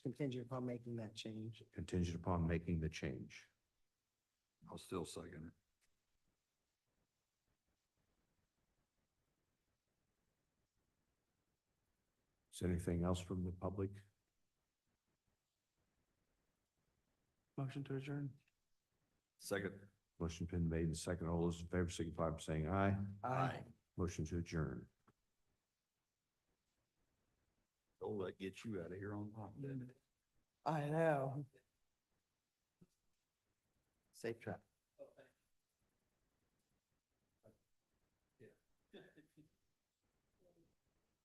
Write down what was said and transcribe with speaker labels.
Speaker 1: contingent upon making that change.
Speaker 2: contingent upon making the change.
Speaker 3: I'll still second it.
Speaker 2: Is anything else from the public?
Speaker 4: Motion to adjourn.
Speaker 3: Second.
Speaker 2: Motion been made and second. All those in favor signify by saying aye. Motion to adjourn.
Speaker 3: Oh, that gets you out of here on time, didn't it?
Speaker 1: I know. Safe trip.